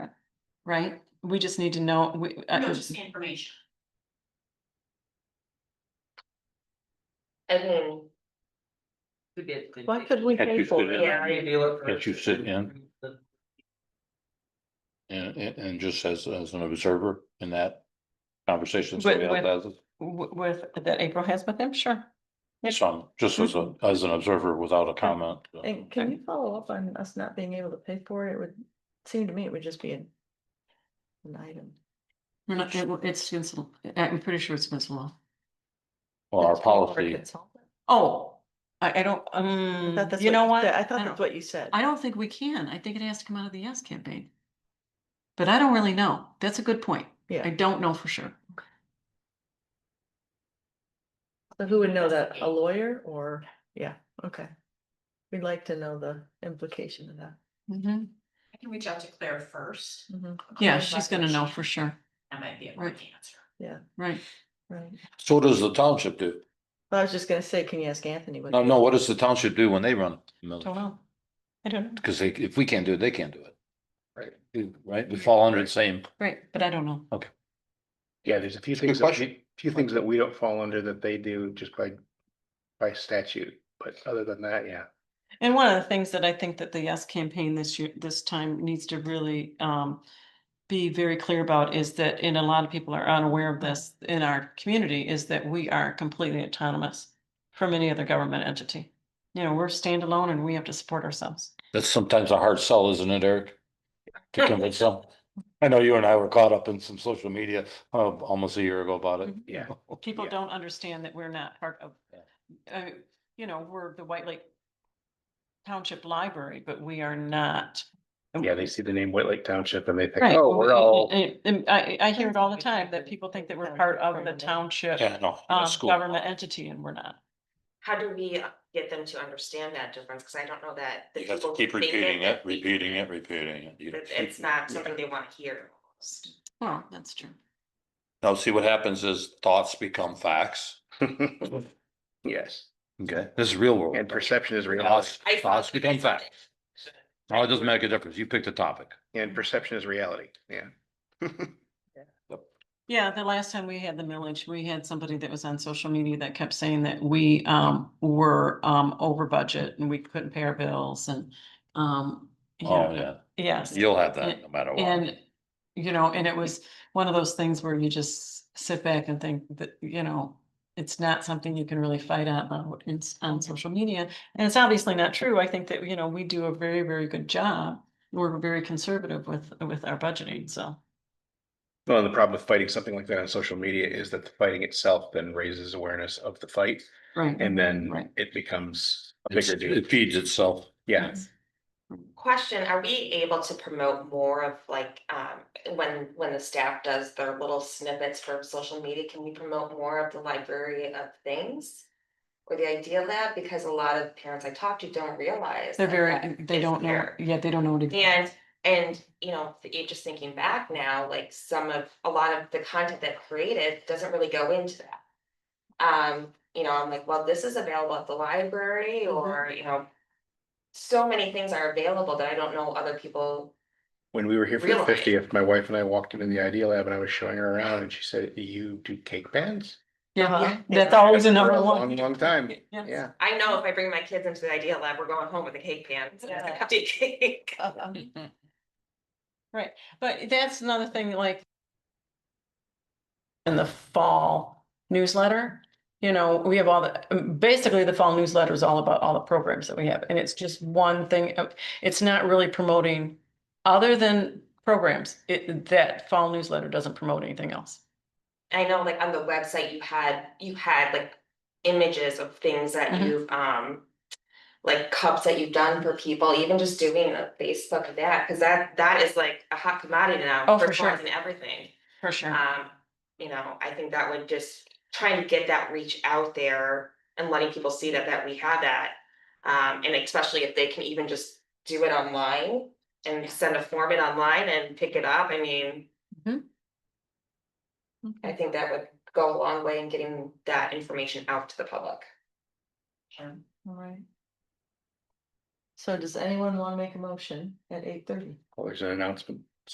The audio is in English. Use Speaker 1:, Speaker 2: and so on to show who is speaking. Speaker 1: right? We just need to know, we, uh,
Speaker 2: No, just information.
Speaker 3: And then,
Speaker 2: Could be a good
Speaker 4: Why
Speaker 2: thing.
Speaker 4: could we
Speaker 5: Can't
Speaker 4: pay
Speaker 5: you
Speaker 4: for
Speaker 5: fit
Speaker 4: it?
Speaker 5: in?
Speaker 3: yeah, I-
Speaker 2: Maybe look for-
Speaker 5: Can't you sit in? and, and, and just as, as an observer in that conversation.
Speaker 1: With-
Speaker 5: somebody else has it.
Speaker 1: w- with, that April has with him, sure. Yes.
Speaker 5: So just as a, as an observer without a comment. uh,
Speaker 4: And can you follow up on us not being able to pay for it? It would seem to me it would just be an. An item.
Speaker 1: We're not, it- it's against, the- I'm pretty sure it's against the law.
Speaker 5: Well, our
Speaker 4: that's paid for a
Speaker 5: policy,
Speaker 4: consultant.
Speaker 1: Oh, I, I don't,
Speaker 4: I
Speaker 1: um,
Speaker 4: thought that's
Speaker 1: you know
Speaker 4: said.
Speaker 1: what?
Speaker 4: I thought
Speaker 1: don't-
Speaker 4: that's what you said.
Speaker 1: I don't think we can. I think it has to come out of the yes campaign. But I don't really know. That's a good point. I
Speaker 4: Yeah,
Speaker 1: don't know for sure.
Speaker 4: so who would know that? A lawyer or, yeah, okay. We'd like to know the implication of that.
Speaker 1: Mhm.
Speaker 2: I can reach out to Claire first.
Speaker 4: Mhm,
Speaker 1: Yeah,
Speaker 2: Claire
Speaker 1: she's gonna know for
Speaker 2: Blackledge.
Speaker 1: sure,
Speaker 2: That might be a quick answer.
Speaker 1: right?
Speaker 4: Right.
Speaker 5: so what does the township do?
Speaker 4: Well, I was just gonna say, can you ask Anthony? what
Speaker 5: No,
Speaker 4: he-
Speaker 5: no, what does the township do when they run? a mill?
Speaker 1: know. I don't know.
Speaker 5: Cause they, if we can't do it, they can't do it.
Speaker 6: Right.
Speaker 5: Right, we fall under the same.
Speaker 1: Right, but I don't know.
Speaker 6: Yeah, there's a few
Speaker 5: Good
Speaker 6: things, that
Speaker 5: question.
Speaker 6: we- few things that we don't fall under that they do just by, by statute, but other than that, yeah.
Speaker 1: And one of the things that I think that the yes campaign this year, this time needs to really um. Be very clear about is that, and a lot of people are unaware of this in our community, is that we are completely autonomous. From any other government entity. You know, we're standalone and we have to support ourselves.
Speaker 5: That's sometimes a hard sell, isn't it, Eric? To convince them. I know you and I were caught up in some social media, uh, almost a year ago about it.
Speaker 6: Yeah.
Speaker 1: People
Speaker 6: Yeah.
Speaker 1: don't understand that we're not part of. Uh, you know, we're the White Lake. Township Library, but we are not.
Speaker 6: Yeah, they see the name White Lake Township and they think,
Speaker 1: Right.
Speaker 6: oh, we're all,
Speaker 1: And- and I, I hear it all the time that people think that we're part of the township.
Speaker 5: Yeah, no.
Speaker 1: um,
Speaker 5: that's cool.
Speaker 1: government entity and we're not.
Speaker 3: how do we uh, get them to understand that difference? Cause I don't know that. the
Speaker 5: You have to
Speaker 3: people
Speaker 5: keep
Speaker 3: who think
Speaker 5: repeating it,
Speaker 3: that we-
Speaker 5: repeating it, repeating it. You-
Speaker 3: that It's not something they wanna hear. almost.
Speaker 1: Well, that's true.
Speaker 5: Now, see what happens is thoughts become facts.
Speaker 6: yes,
Speaker 5: Okay, this is real world.
Speaker 6: and perception is reality,
Speaker 5: Thoughts,
Speaker 3: I thought-
Speaker 5: thoughts become facts. Now, it doesn't make a difference. You picked a topic.
Speaker 6: and perception is reality, yeah.
Speaker 1: Yeah, the last time we had the millage, we had somebody that was on social media that kept saying that we um were um over budget and we couldn't pay our bills and um. you
Speaker 5: Oh,
Speaker 1: know,
Speaker 5: yeah,
Speaker 1: Yes,
Speaker 5: you'll have that no matter what.
Speaker 1: and you know, and it was one of those things where you just sit back and think that, you know. It's not something you can really fight out about in s-
Speaker 3: Mm-hmm.
Speaker 1: on social media, and it's obviously not true. I think that, you know, we do a very, very good job. We're very conservative with with our budgeting, so.
Speaker 6: Well, and the problem with fighting something like that on social media is that the fighting itself then raises awareness of the fight
Speaker 1: Right. Right.
Speaker 6: and then it becomes a
Speaker 5: It's-
Speaker 6: bigger deal,
Speaker 5: It feeds itself.
Speaker 6: yeah.
Speaker 3: Question, are we able to promote more of like, um, when, when the staff does their little snippets for social media, can we promote more of the library of things? Or the idea of that, because a lot of parents I talk to don't realize.
Speaker 1: They're
Speaker 3: that
Speaker 1: very,
Speaker 3: that
Speaker 1: they
Speaker 3: is
Speaker 1: don't know,
Speaker 3: there.
Speaker 1: yeah, they don't know what. it-
Speaker 3: And, and, you know, th- just thinking back now, like some of, a lot of the content that created doesn't really go into that. Um, you know, I'm like, well, this is available at the library or, you know. So many things are available that I don't know other people,
Speaker 6: When we were here for the
Speaker 3: Realize.
Speaker 6: fiftieth, my wife and I walked into the Idea Lab and I was showing her around and she said, you do cake bands?
Speaker 1: Yeah,
Speaker 3: Yeah.
Speaker 1: that's always a number
Speaker 6: For a
Speaker 1: one.
Speaker 6: long, long time.
Speaker 1: Yes.
Speaker 6: Yeah,
Speaker 3: I know if I bring my kids into the idea lab, we're going home with a cake pan. and a
Speaker 1: Yeah.
Speaker 3: cupcake cake.
Speaker 1: Oh, um, Right, but that's another thing like. In the fall newsletter, you know, we have all the, um, basically the fall newsletter is all about all the programs that we have. And it's just one thing, of- it's not really promoting, other than programs, it, that fall newsletter doesn't promote anything else.
Speaker 3: I know like on the website, you had, you had like images of things that
Speaker 1: Mhm.
Speaker 3: you've, um. Like cups that you've done for people, even just doing a Facebook of that, cause that, that is like a hot commodity now.
Speaker 1: Oh, for
Speaker 3: flowers
Speaker 1: sure.
Speaker 3: And everything,
Speaker 1: For sure.
Speaker 3: um, you know, I think that would just trying to get that reach out there. And letting people see that, that we have that, um, and especially if they can even just do it online. And send a form in online and pick it up, I mean. I think that would go a long way in getting that information out to the public.
Speaker 4: All right. So does anyone wanna make a motion at eight thirty?
Speaker 6: well, there's an announcement.